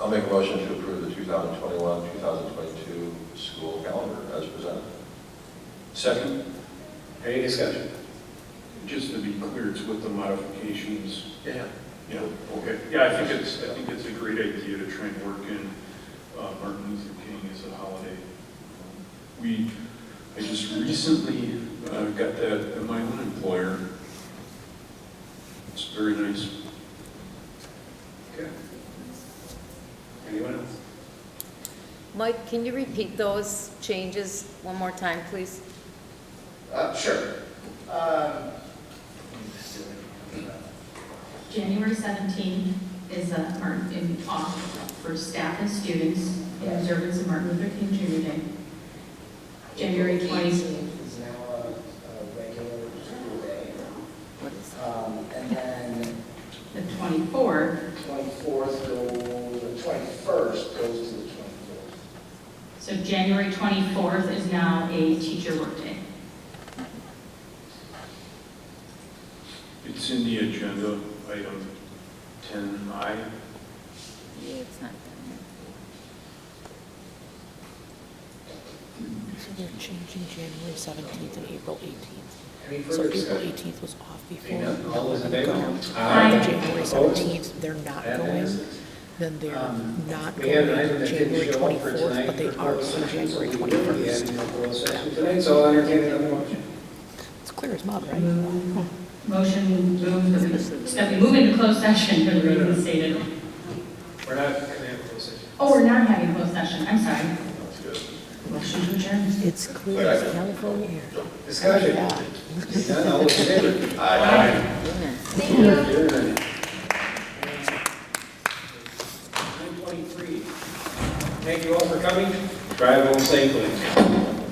I'll make a motion to approve the 2021, 2022 school calendar as presented. Second. Any discussion? Just to be clear, it's with the modifications. Yeah. Yeah, okay. Yeah, I think it's, I think it's a great idea to try and work in uh, Martin Luther King as a holiday. We, I just recently uh, got that at my own employer. It's very nice. Okay. Anyone else? Mike, can you repeat those changes one more time, please? Uh, Sure. Um, January 17th is uh, Martin, in off for staff and students in observance of Martin Luther King Jr. Day. January 20th. 18th is now a a regular school day. What is, Um, And then The 24th, 24th goes, the 21st goes to the 24th. so January 24th is now a teacher workday. It's in the agenda, item 10I. yeah, it's not down They're changing January 17th and April 18th. Any So further April discussion? 18th was off Seeing before. none, all those in They're favor? going. Aye. After January Opposed? 17th, they're not That going, passes. then they're Um, not We had going an item that didn't show January up for 24th, tonight. but they for are closed on session, so January we will be 21st. having a closed session Tonight, so I'll entertain another motion. It's clear as mud, right? Mm. Motion move that we, that we move into closed session for the reasons stated. We're not going to have a closed session. Oh, we're not having closed session, I'm sorry. Motion to adjourn. It's clear as California air. Discussion? Yeah. Seeing none, all those in favor? there. Goodness. Adjourned. 9:23. Thank you all for coming. Drive home safely.